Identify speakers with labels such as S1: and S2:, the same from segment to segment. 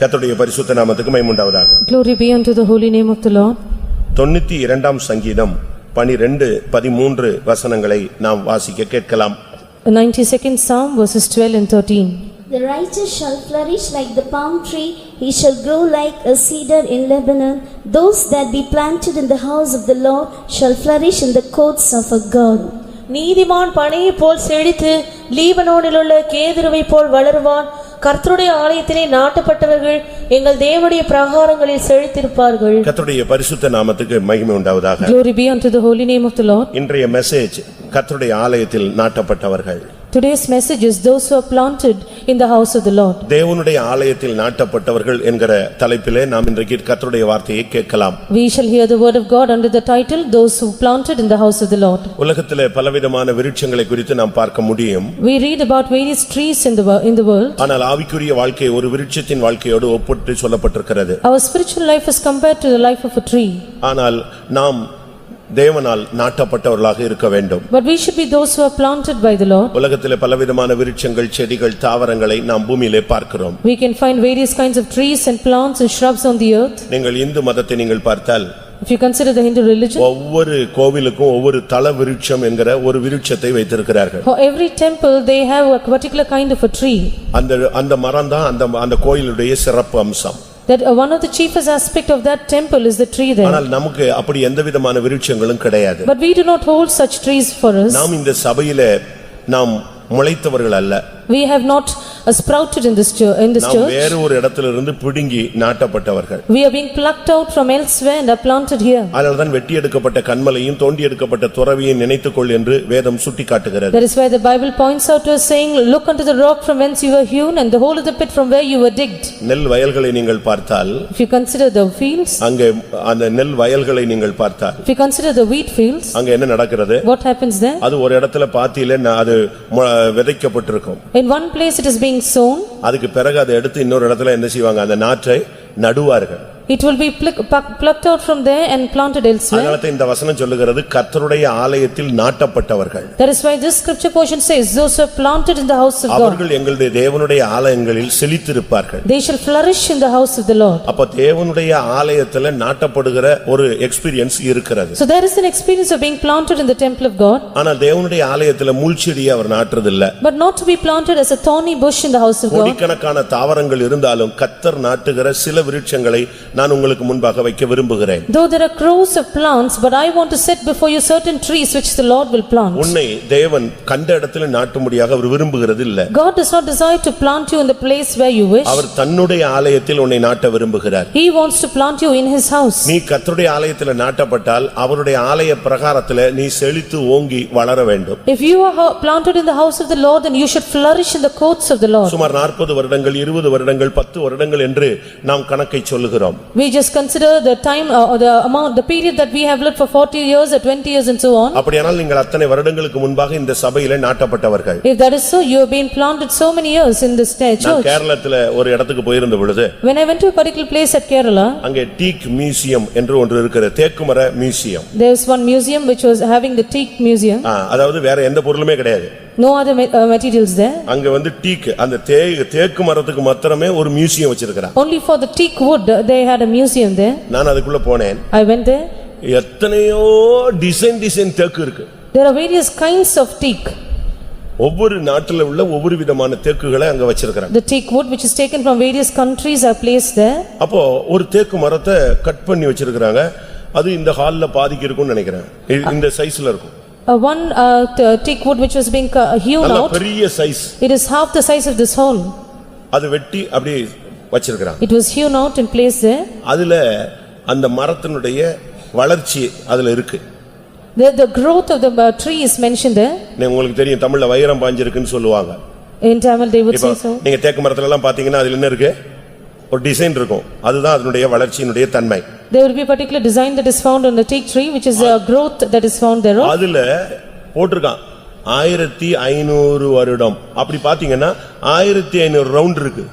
S1: கர்த்தருடைய பரிசுத்த நாமத்துக்கு மைமுண்டாவதாக
S2: Glory be unto the holy name of the Lord.
S1: தொண்ணூத்தி இரண்டாம் சங்கீதம் பனிரெண்டு பதிமூன்று வசனங்களை நாம் வாசிக்க கேட்கலாம்
S2: The 92nd Psalm verses 12 and 13.
S3: The righteous shall flourish like the palm tree, he shall grow like a cedar in Lebanon. Those that be planted in the house of the Lord shall flourish in the courts of our God.
S4: நீதிமான் பனையைப் போல் செழித்து லீபனோனிலுள்ள கேதுருவைப் போல் வளருவான் கர்த்தருடைய ஆலயத்திலே நாட்டப்பட்டவர்கள் எங்கள் தேவனுடைய பிரகாரங்களில் செழித்திருப்பார்கள்
S1: கர்த்தருடைய பரிசுத்த நாமத்துக்கு மகிமை உண்டாவதாக
S2: Glory be unto the holy name of the Lord.
S1: இன்றைய மெசேஜ் கர்த்தருடைய ஆலயத்தில் நாட்டப்பட்டவர்கள்
S2: Today's message is those who are planted in the house of the Lord.
S1: தேவனுடைய ஆலயத்தில் நாட்டப்பட்டவர்கள் என்கிற தலைப்பிலே நாம் இன்றைக்கு கர்த்தருடைய வார்த்தையை கேட்கலாம்
S2: We shall hear the word of God under the title, Those Who Planted in the House of the Lord.
S1: உலகத்திலே பலவிதமான விருட்சங்களை குறித்து நாம் பார்க்க முடியும்
S2: We read about various trees in the wo- in the world.
S1: ஆனால் ஆவிக்குரிய வாழ்க்கை ஒரு விருட்சத்தின் வாழ்க்கையோடு ஒப்பிட்டு சொல்லப்பட்டிருக்கிறது
S2: Our spiritual life is compared to the life of a tree.
S1: ஆனால் நாம் தேவனால் நாட்டப்பட்டவர்களாக இருக்க வேண்டும்
S2: But we should be those who are planted by the Lord.
S1: உலகத்திலே பலவிதமான விருட்சங்கள் செடிகள் தாவரங்களை நாம் பூமியிலே பார்க்கிறோம்
S2: We can find various kinds of trees and plants and shrubs on the earth.
S1: நீங்கள் இந்து மதத்தை நீங்கள் பார்த்தால்
S2: If you consider the Hindu religion,
S1: ஒவ்வொரு கோவிலுக்கும் ஒவ்வொரு தல விருட்சம் என்கிற ஒரு விருட்சத்தை வைத்திருக்கிறார்கள்
S2: For every temple, they have a particular kind of a tree.
S1: அந்த அந்த மரம் தான் அந்த அந்த கோயிலுடைய சிறப்பு அம்சம்
S2: That uh, one of the chiefest aspect of that temple is the tree there.
S1: ஆனால் நமக்கு அப்படி எந்த விதமான விருட்சங்களும் கிடையாது
S2: But we do not hold such trees for us.
S1: நாம் இந்த சபையிலே நாம் முளைத்தவர்கள் அல்ல
S2: We have not uh, sprouted in this church, in this
S1: நாம்
S2: church.
S1: வேறு ஒரு இடத்திலிருந்து பிடுங்கி நாட்டப்பட்டவர்கள்
S2: We are being plucked out from elsewhere and are planted here.
S1: அதனால்தான் வெட்டி எடுக்கப்பட்ட கண்மலையும் தோண்டி எடுக்கப்பட்ட துறவியும் நினைத்துக்கொள் என்று வேதம் சுட்டிக்காட்டுகிறது
S2: That is why the Bible points out to us saying, "Look unto the rock from whence you were hewn and the hole of the pit from where you were digged."
S1: நெல் வயல்களை நீங்கள் பார்த்தால்
S2: If you consider the fields,
S1: அங்கே அந்த நெல் வயல்களை நீங்கள் பார்த்தால்
S2: if you consider the wheat fields,
S1: அங்க என்ன நடக்கிறது
S2: what happens there?
S1: அது ஒரு இடத்துல பாத்தியில ந- அது மு- விதைக்கப்பட்டிருக்கும்
S2: In one place it is being sown,
S1: அதுக்கு பிறகு அதை எடுத்து இன்னொரு இடத்துல என்ன செய்வாங்க அந்த நாற்றை நடுவார்கள்
S2: it will be pluck- pluck- plucked out from there and planted elsewhere.
S1: அதனால தான் இந்த வசனம் சொல்லுகிறது கர்த்தருடைய ஆலயத்தில் நாட்டப்பட்டவர்கள்
S2: That is why this scripture portion says, "Those who are planted in the house of God,
S1: அவர்கள் எங்களுடைய தேவனுடைய ஆலயங்களில் செழித்திருப்பார்கள்
S2: they shall flourish in the house of the Lord."
S1: அப்ப தேவனுடைய ஆலயத்துல நாட்டப்படுகிற ஒரு எக்ஸ்பீரியன்ஸ் இருக்கிறது
S2: So there is an experience of being planted in the temple of God,
S1: ஆனா தேவனுடைய ஆலயத்துல முள்செடியை அவர் நாட்டுறதில்ல
S2: but not to be planted as a thorny bush in the house of God.
S1: கோடிக்கணக்கான தாவரங்கள் இருந்தாலும் கத்தர் நாட்டுகிற சில விருட்சங்களை நான் உங்களுக்கு முன்பாக வைக்க விரும்புகிறேன்
S2: Though there are crows of plants, but I want to set before you certain trees which the Lord will plant.
S1: உன்னை தேவன் கண்ட இடத்துல நாட்டும்படியாக அவர் விரும்புகிறது இல்ல
S2: God does not desire to plant you in the place where you wish.
S1: அவர் தன்னுடைய ஆலயத்தில் உன்னை நாட்ட விரும்புகிறார்
S2: He wants to plant you in his house.
S1: நீ கர்த்தருடைய ஆலயத்துல நாட்டப்பட்டால் அவருடைய ஆலய பிரகாரத்துல நீ செழித்து ஓங்கி வளர வேண்டும்
S2: If you are ho- planted in the house of the Lord, then you should flourish in the courts of the Lord.
S1: சுமார் நாற்பது வருடங்கள் இருபது வருடங்கள் பத்து வருடங்கள் என்று நாம் கணக்கை சொல்லுகிறோம்
S2: We just consider the time uh, or the amount, the period that we have lived for forty years or twenty years and so on.
S1: அப்படியானால் நீங்கள் அத்தனை வருடங்களுக்கு முன்பாக இந்த சபையில நாட்டப்பட்டவர்கள்
S2: If that is so, you have been planted so many years in this ta-
S1: நான்
S2: church.
S1: கேரளத்துல ஒரு இடத்துக்கு போயிருந்த பொழுது
S2: When I went to a particular place at Kerala,
S1: அங்கே டீக் மியூசியம் என்று ஒன்று இருக்கிற தேக்குமர museum
S2: there was one museum which was having the teak museum,
S1: ஆ, அதாவது வேற எந்த பொருளுமே கிடையாது
S2: no other ma- uh, materials there.
S1: அங்க வந்து டீக் அந்த தே தேக்கு மரத்துக்கு மாத்திரமே ஒரு மியூசியம் வச்சிருக்கிறான்
S2: Only for the teak wood, uh, they had a museum there.
S1: நான் அதுக்குள்ள போனேன்
S2: I went there.
S1: எத்தனையோ டிசைன் டிசைன் தேக்கு இருக்கு
S2: There are various kinds of teak.
S1: ஒவ்வொரு நாட்டுல உள்ள ஒவ்வொரு விதமான தேக்குகளை அங்க வச்சிருக்கிறாங்க
S2: The teak wood which is taken from various countries are placed there.
S1: அப்போ ஒரு தேக்கு மரத்தை கட் பண்ணி வச்சிருக்கிறாங்க அது இந்த ஹால்ல பாதிக்கு இருக்கும்னு நினைக்கிறேன் இ- இந்த சைஸ்ல இருக்கும்
S2: Uh, One uh, t- uh, teak wood which was being cu- hewn
S1: நல்ல
S2: out,
S1: பெரிய size
S2: it is half the size of this hall.
S1: அது வெட்டி அப்படியே வச்சிருக்கிறாங்க
S2: It was hewn out and placed there.
S1: அதுல அந்த மரத்தினுடைய வளர்ச்சி அதுல இருக்கு
S2: The the growth of the uh, tree is mentioned there.
S1: நீ- உங்களுக்கு தெரியும் தமிழ்ல வைரம் பாஞ்சிருக்குன்னு சொல்லுவாங்க
S2: In Tamil, they would
S1: இப்போ
S2: say so.
S1: நீங்க தேக்கு மரத்துல எல்லாம் பாத்தீங்கன்னா அதுல என்ன இருக்கு ஒரு டிசைன் இருக்கும் அதுதான் அதனுடைய வளர்ச்சியினுடைய தன்மை
S2: There will be a particular design that is found on the teak tree, which is a growth that is found thereof.
S1: அதுல போட்டிருக்கான் ஆயிரத்தி ஐநூறு வருடம் அப்படி பாத்தீங்கன்னா ஆயிரத்தி ஐநூறு ரவுண்ட் இருக்கு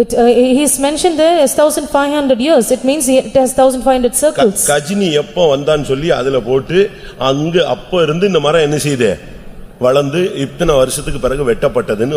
S2: It, uh, he is mentioned there as thousand five hundred years, it means it has thousand five hundred
S1: க-
S2: circles.
S1: கஜினி எப்போ வந்தான்னு சொல்லி அதுல போட்டு அங்க அப்ப இருந்து இந்த மரம் என்ன செய்யுது வளர்ந்து இத்தனை வருஷத்துக்கு பிறகு வெட்டப்பட்டதுன்னு